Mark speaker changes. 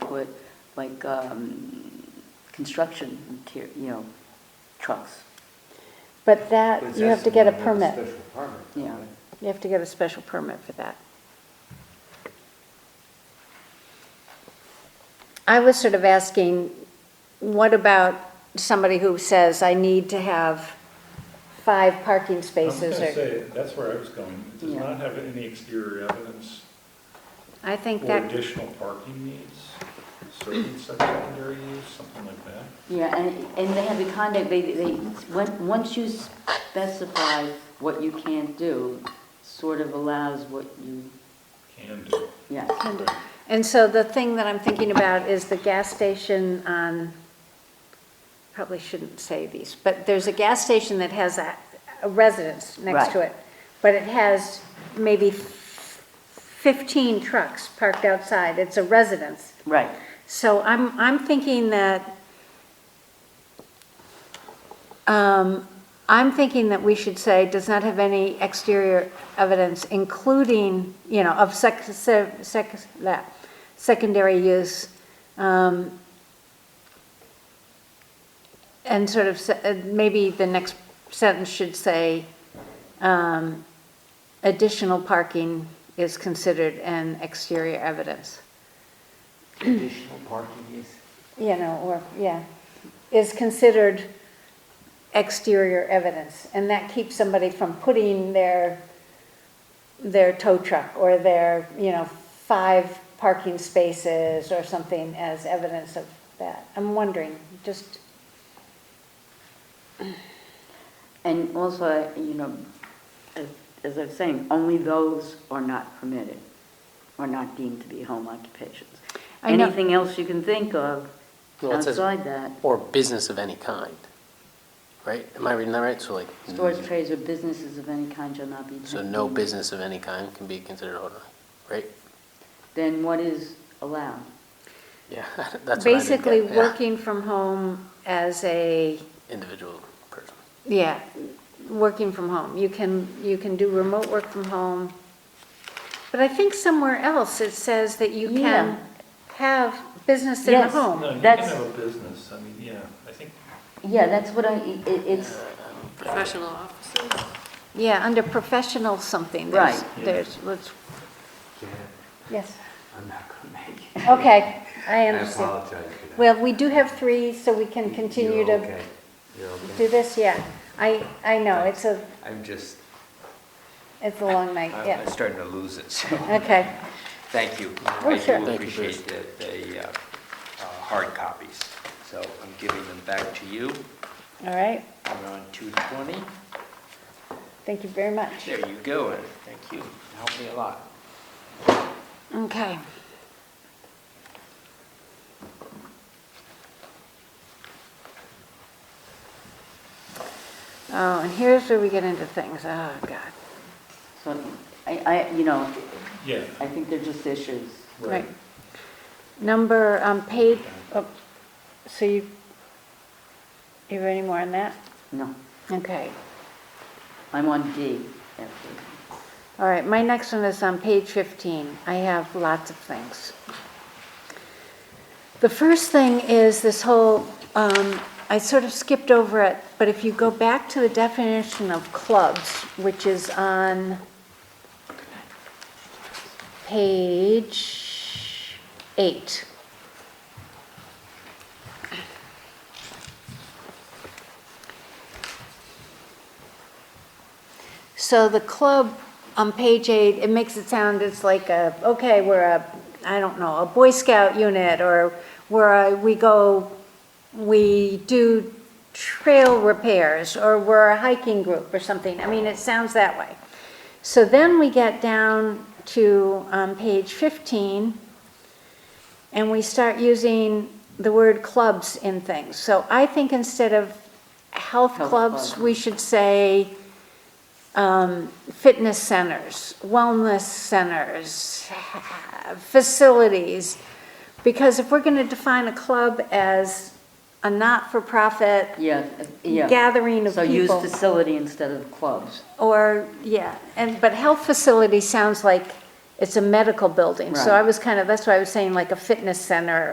Speaker 1: put like um, construction, mater- you know, trucks.
Speaker 2: But that, you have to get a permit.
Speaker 3: Special permit.
Speaker 1: Yeah.
Speaker 3: don't they?
Speaker 2: You have to get a special permit for that. I was sort of asking, what about somebody who says, I need to have five parking
Speaker 4: I was
Speaker 2: spaces?
Speaker 4: gonna
Speaker 2: or
Speaker 4: say, that's where I was going. It does
Speaker 1: Yeah.
Speaker 4: not have any exterior evidence
Speaker 2: I think
Speaker 4: or
Speaker 2: that,
Speaker 4: additional parking needs, certain secondary use, something like that.
Speaker 1: Yeah, and, and they have the conduct, they, they, when- once you specify what you can't do, sort of allows what you,
Speaker 4: Can do.
Speaker 1: yes.
Speaker 2: and so the thing that I'm thinking about is the gas station on, probably shouldn't say these, but there's a gas station that has a a residence next
Speaker 1: Right.
Speaker 2: to it. But it has maybe 15 trucks parked outside. It's a residence.
Speaker 1: Right.
Speaker 2: So I'm, I'm thinking that, um, I'm thinking that we should say, does not have any exterior evidence, including, you know, of sec, sec, sec- that, secondary use, um, and sort of, se- uh, maybe the next sentence should say, um, additional parking is considered an exterior evidence
Speaker 3: Additional parking use.
Speaker 2: you know, or, yeah, is considered exterior evidence, and that keeps somebody from putting their, their tow truck or their, you know, five parking spaces or something as evidence of that. I'm wondering, just,
Speaker 1: And also, you know, as- as I was saying, only those are not permitted, are not deemed to be home occupations.
Speaker 2: I know-
Speaker 1: Anything else you can think of
Speaker 5: Well, it says-
Speaker 1: outside that,
Speaker 5: Or business of any kind, right? Am I reading that right? So like,
Speaker 1: stores, trades, or businesses of any kind shall not be.
Speaker 5: so no business of any kind can be considered owner, right?
Speaker 1: Then what is allowed?
Speaker 5: Yeah, that's what I didn't
Speaker 2: basically
Speaker 5: get, yeah.
Speaker 2: working from home as a,
Speaker 5: Individual person.
Speaker 2: yeah, working from home. You can, you can do remote work from home, but I think somewhere else it says that you
Speaker 1: Yeah.
Speaker 2: can have business in the
Speaker 1: Yes.
Speaker 2: home.
Speaker 4: No, you can
Speaker 1: That's-
Speaker 4: have a business, I mean, yeah, I think
Speaker 1: Yeah, that's what I, it, it's,
Speaker 6: Professional offices?
Speaker 2: Yeah, under professional something, there's,
Speaker 1: Right.
Speaker 2: there's, let's,
Speaker 3: Janet,
Speaker 2: yes,
Speaker 3: I'm not gonna make it.
Speaker 2: okay, I
Speaker 3: I
Speaker 2: understand.
Speaker 3: apologize for that.
Speaker 2: Well, we do have three, so we can
Speaker 3: You-
Speaker 2: continue
Speaker 3: you're
Speaker 2: to
Speaker 3: okay. You're
Speaker 2: do
Speaker 3: okay.
Speaker 2: this, yeah. I, I know, it's a,
Speaker 3: I'm just,
Speaker 2: it's a long night,
Speaker 3: I'm I'm
Speaker 2: yeah,
Speaker 3: starting to lose it, so,
Speaker 2: okay.
Speaker 3: thank you.
Speaker 2: Oh,
Speaker 3: I
Speaker 2: sure.
Speaker 3: do
Speaker 5: Thank you,
Speaker 3: appreciate the, the, uh, uh, hard copies, so I'm giving them back to you.
Speaker 2: All right,
Speaker 3: We're on two twenty,
Speaker 2: thank you very much.
Speaker 3: there you go, and thank you, helped me a lot.
Speaker 2: Okay. Oh, and here's where we get into things, oh, God.
Speaker 1: so, I, I, you know,
Speaker 4: Yeah,
Speaker 1: I think they're just issues.
Speaker 4: right.
Speaker 2: Number, um, page, oh, so you, you have any more on that?
Speaker 1: No,
Speaker 2: Okay,
Speaker 1: I'm on D after.
Speaker 2: all right, my next one is on page 15. I have lots of things. The first thing is this whole, um, I sort of skipped over it, but if you go back to the definition of clubs, which is on page eight. So the club on page eight, it makes it sound, it's like a, okay, we're a, I don't know, a Boy Scout unit, or we're a, we go, we do trail repairs, or we're a hiking group or something. I mean, it sounds that way. So then we get down to, um, page fifteen, and we start using the word clubs in things. So I think instead of health
Speaker 1: Health
Speaker 2: clubs,
Speaker 1: club.
Speaker 2: we should say, um, fitness centers, wellness centers, facilities. Because if we're going to define a club as a not-for-profit
Speaker 1: Yeah, uh, yeah.
Speaker 2: Gathering of
Speaker 1: So
Speaker 2: people.
Speaker 1: use facility instead of clubs.
Speaker 2: or, yeah, and, but health facility sounds like it's a medical building. So
Speaker 1: Right.
Speaker 2: I was kind of, that's why I was saying like a fitness center